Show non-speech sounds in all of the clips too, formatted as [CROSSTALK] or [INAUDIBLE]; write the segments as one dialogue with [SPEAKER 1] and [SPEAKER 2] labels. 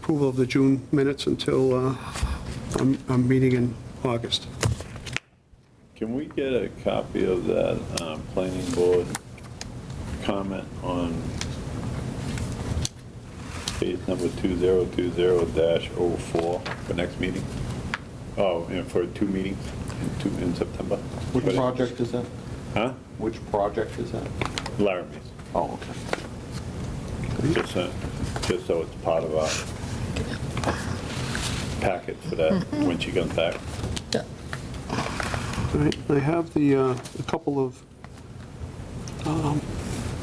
[SPEAKER 1] approval of the June minutes until uh, our our meeting in August.
[SPEAKER 2] Can we get a copy of that uh, planning board comment on case number 2020-04 for next meeting? Oh, and for two meetings, in two- in September?
[SPEAKER 3] Which project is that?
[SPEAKER 2] Huh?
[SPEAKER 3] Which project is that?
[SPEAKER 2] Laramie's.
[SPEAKER 3] Oh, okay.
[SPEAKER 2] Just so- just so it's part of our packet for that, when she comes back.
[SPEAKER 1] All right, I have the, uh, a couple of um,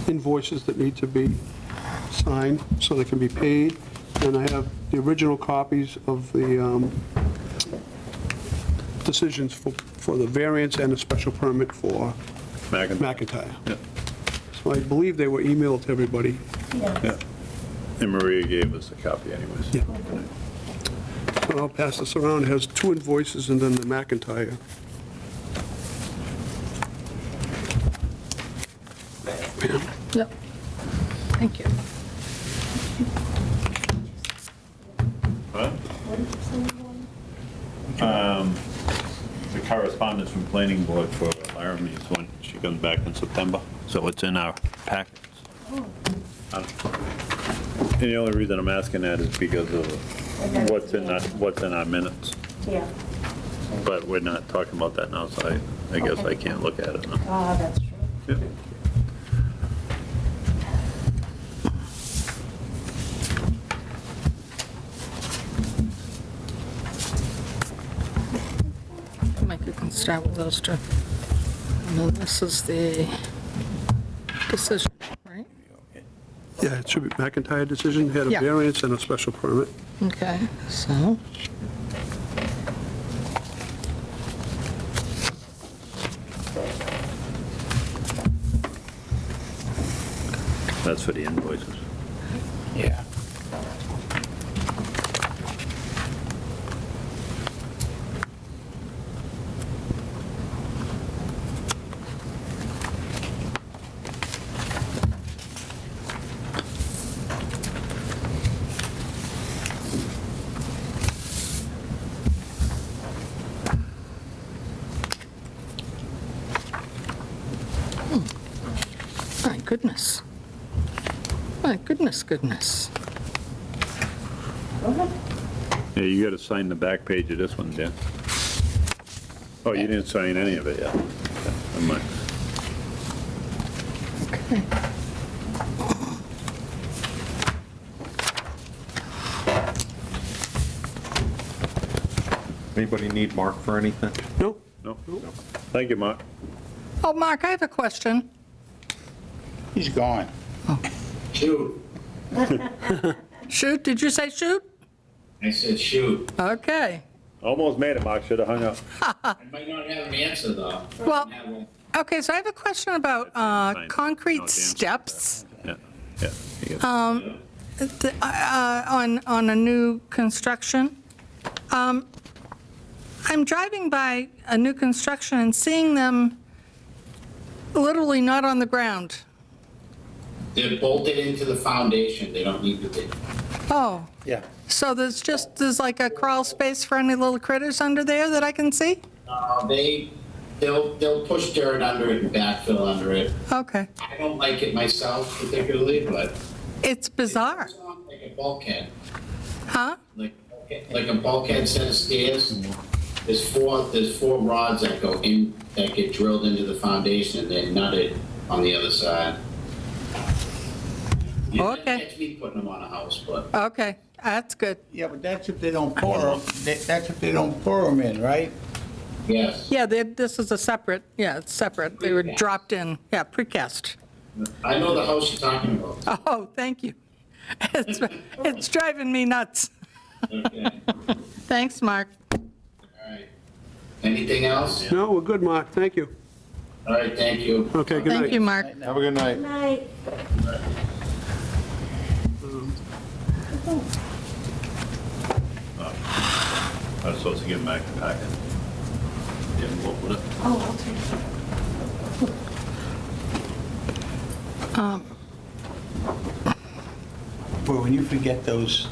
[SPEAKER 1] invoices that need to be signed so they can be paid, and I have the original copies of the um, decisions for, for the variance and a special permit for
[SPEAKER 2] Megan?
[SPEAKER 1] McIntyre.
[SPEAKER 2] Yeah.
[SPEAKER 1] So I believe they were emailed to everybody.
[SPEAKER 2] Yeah. And Maria gave us a copy anyways.
[SPEAKER 1] Yeah. So I'll pass this around, it has two invoices and then the McIntyre.
[SPEAKER 4] Yep. Thank you.
[SPEAKER 2] Huh? Um, the correspondence from planning board for Laramie is when she comes back in September, so it's in our packets. Um, And the only reason I'm asking that is because of what's in, our- what's in our minutes,
[SPEAKER 5] Yeah,
[SPEAKER 2] but we're not talking about that now, so I, I guess I can't look at it now.
[SPEAKER 5] ah, that's true.
[SPEAKER 2] Yeah.
[SPEAKER 4] Mike, you can start with those two. And then this is the decision, right?
[SPEAKER 1] Yeah, it should be McIntyre decision, had a
[SPEAKER 4] Yeah.
[SPEAKER 1] variance and a special permit.
[SPEAKER 4] Okay, so.
[SPEAKER 2] That's for the invoices.
[SPEAKER 3] Yeah.
[SPEAKER 4] My goodness. My goodness, goodness.
[SPEAKER 5] Go ahead.
[SPEAKER 2] Yeah, you gotta sign the back page of this one, Dan. Oh, you didn't sign any of it yet. Okay, never mind.
[SPEAKER 4] Okay.
[SPEAKER 3] Anybody need Mark for anything?
[SPEAKER 1] No?
[SPEAKER 2] No? Thank you, Mark.
[SPEAKER 4] Oh, Mark, I have a question.
[SPEAKER 6] He's gone.
[SPEAKER 7] Shoot.
[SPEAKER 4] Shoot, did you say shoot?
[SPEAKER 7] I said, shoot.
[SPEAKER 4] Okay.
[SPEAKER 2] Almost made it, Mark, should have hung up.
[SPEAKER 7] I might not have an answer, though.
[SPEAKER 4] Well-
[SPEAKER 7] I have one.
[SPEAKER 4] Okay, so I have a question
[SPEAKER 2] Fine.
[SPEAKER 4] about
[SPEAKER 2] No,
[SPEAKER 4] uh,
[SPEAKER 2] Dan,
[SPEAKER 4] concrete
[SPEAKER 2] stop
[SPEAKER 4] steps
[SPEAKER 2] Yeah, yeah. you get it.
[SPEAKER 4] th- uh, on, on a new construction. Um, I'm driving by a new construction and seeing them literally not on the ground.
[SPEAKER 7] They're bolted into the foundation, they don't need to be.
[SPEAKER 4] Oh,
[SPEAKER 6] Yeah.
[SPEAKER 4] so there's just, there's like a crawl space for any little critters under there that I can see?
[SPEAKER 7] Uh, They, they'll, they'll push dirt under it and backfill under it.
[SPEAKER 4] Okay.
[SPEAKER 7] I don't like it myself particularly, but
[SPEAKER 4] It's bizarre,
[SPEAKER 7] it's not like a bulkhead,
[SPEAKER 4] huh?
[SPEAKER 7] like, like a bulkhead set of stairs. There's four, there's four rods that go in, that get drilled into the foundation and then nutted on the other side. You can't
[SPEAKER 4] Okay.
[SPEAKER 7] Catch me putting them on a house, but.
[SPEAKER 4] Okay, that's good.
[SPEAKER 6] Yeah, but that's if they don't pour them, that's if they don't pour them in, right?
[SPEAKER 7] Yes,
[SPEAKER 4] Yeah, they- this is a separate, yeah, it's separate. They were
[SPEAKER 7] Precast.
[SPEAKER 4] dropped in, yeah, precast.
[SPEAKER 7] I know the house you're talking about.
[SPEAKER 4] [LAUGHS] Oh, thank you. It's it's driving me nuts.
[SPEAKER 7] Okay,
[SPEAKER 4] Thanks, Mark.
[SPEAKER 7] all right. Anything else?
[SPEAKER 1] No, we're good, Mark, thank you.
[SPEAKER 7] All right, thank you.
[SPEAKER 1] Okay, good night.
[SPEAKER 4] Thank you, Mark.
[SPEAKER 3] Have a good night.
[SPEAKER 5] Night.
[SPEAKER 2] I was supposed to give him back the packet. Didn't open it.
[SPEAKER 5] Oh, I'll take it.
[SPEAKER 6] Boy, when you forget those